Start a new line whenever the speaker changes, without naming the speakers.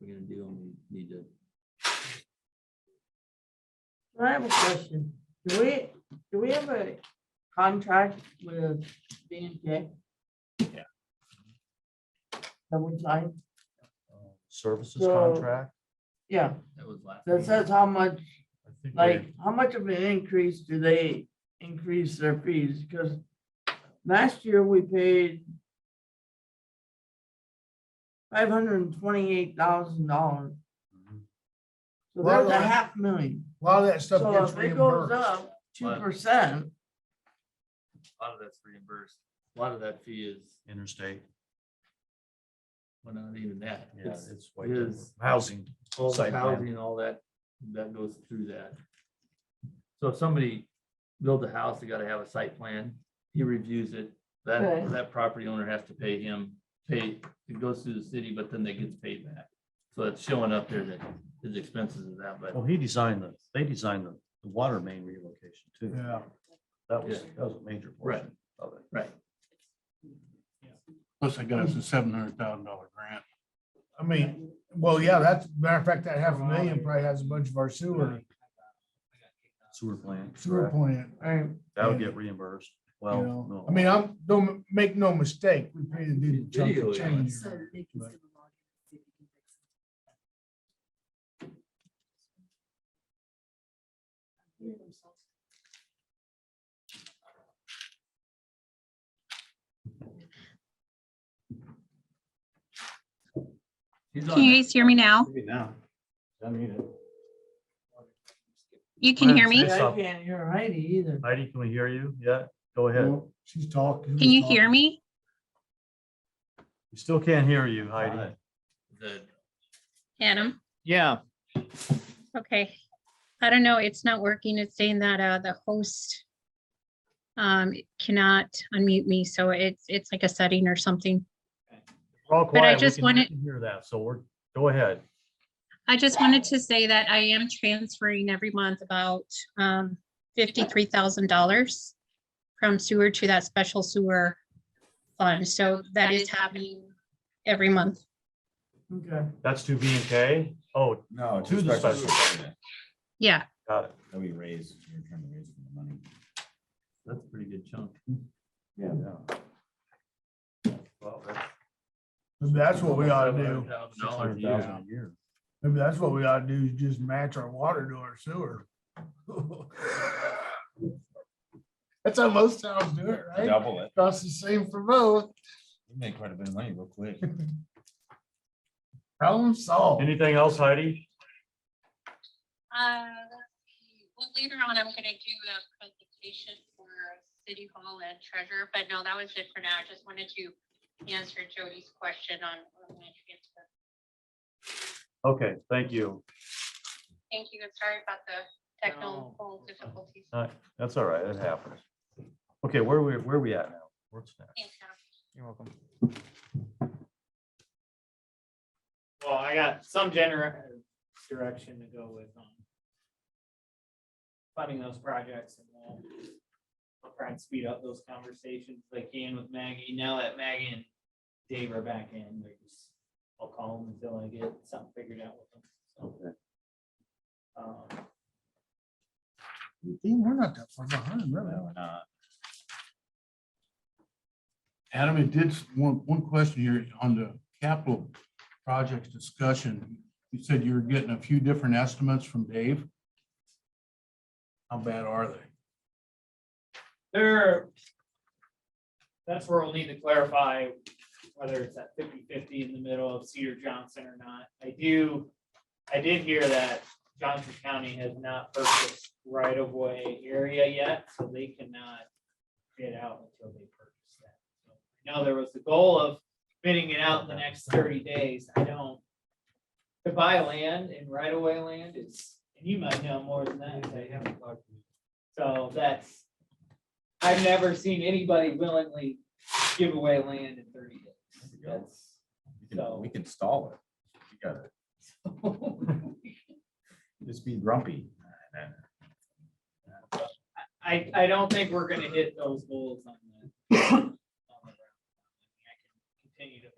we're gonna do, and we need to.
I have a question. Do we, do we have a contract with B and K?
Yeah.
That we signed?
Services
So-
contract,
Yeah,
That was last.
that says how much,
I think we-
like, how much of an increase do they increase their fees? Because last year we paid five hundred and twenty-eight thousand dollars.
Mhm.
So
Well,
there's a
I-
half million.
A lot of that stuff
So
gets
if it goes
reimbursed.
up two percent,
A lot of that's reimbursed. A lot of that fee is,
Interstate,
well, not even that.
yeah,
It's
it's white,
is-
housing,
all the
site plan.
housing and all that, that goes through that. So if somebody builds a house, they gotta have a site plan. He reviews it. That,
Right.
that property owner has to pay him, pay, it goes through the city, but then they gets paid back. So it's showing up there that his expenses is that, but
well, he designed the, they designed the, the water main relocation too.
Yeah.
That was,
Yeah.
that was a major portion of it.
right,
Plus, I got us a seven hundred thousand dollar grant.
I mean, well, yeah, that's, matter of fact, that half a million probably has a bunch of our sewer,
Sewer plant.
sewer
correct.
plant.
right,
That would get reimbursed.
you
Well,
know,
no.
I mean, I'm, don't make no mistake, we paid a dude a chunk
Video,
of
yeah.
change.
So they can
Right.
still log in and see if you can fix it.
he's on
Can you
that.
guys hear me now?
Maybe now. I mean, it-
You can hear me?
Yes,
I
I'll-
can't hear Heidi either.
Heidi, can we hear you? Yeah, go ahead.
Well, She's talking.
Can you hear me?
We still can't hear you, Heidi.
The
Adam?
Yeah,
Okay. I don't know. It's not working. It's saying that uh the host um cannot unmute me, so it's it's like a setting or something.
We're all
I
quiet. We
just
can- we
wanted-
can Hear that, so we're, go ahead.
I just wanted to say that I am transferring every month about um fifty-three thousand dollars from sewer to that special sewer fund. So that is happening every month.
Okay.
That's to B and K? Oh,
No.
To the special.
Yeah.
got it.
That we raised, we were trying to raise from the money.
That's a pretty good chunk.
Yeah. Well, that's
That's what we ought to do.
$700,000 a year.
$600,000 a year.
Maybe that's what we ought to do is just match our water to our sewer. That's how most towns do it, right?
Double it.
Costs the same for both.
We made quite a bit of money real quick.
Problem solved.
Anything else, Heidi?
Uh, Well, later on, I'm gonna do a presentation for City Hall and Treasurer, but no, that was it for now. I just wanted to answer Jody's question on. on my transfer.
Okay, thank you.
Thank you, and sorry about the technical difficulties.
All right, That's all right, it happens. Okay, where we, where we at now? What's next?
Thanks, Adam.
you're welcome. Well, I got some gener direction to go with on funding those projects and we'll we'll try and speed up those conversations like can with Maggie. Now that Maggie and Dave are back in, we just, I'll call them until I get something figured out with them. So,
Okay.
um,
We're not that far behind, really.
No, we're not.
Adam, it did, s- one, one question here on the capital projects discussion. You said you were getting a few different estimates from Dave. How bad are they?
There. That's where we'll need to clarify whether it's at 50-50 in the middle of Cedar Johnson or not. I do, I did hear that Johnson County has not purchased right of way area yet, so they cannot bid out until they purchase that. So I know there was the goal of bidding it out in the next thirty days. I don't. To buy land and right of way land is, and you might know more than that. 'cause I haven't talked to you. So that's, I've never seen anybody willingly give away land in thirty days.
There we go.
That's.
We can- We can stall it. You gotta just be grumpy.
I, I don't think we're gonna hit those goals on that. on the round. I mean, I can Continue to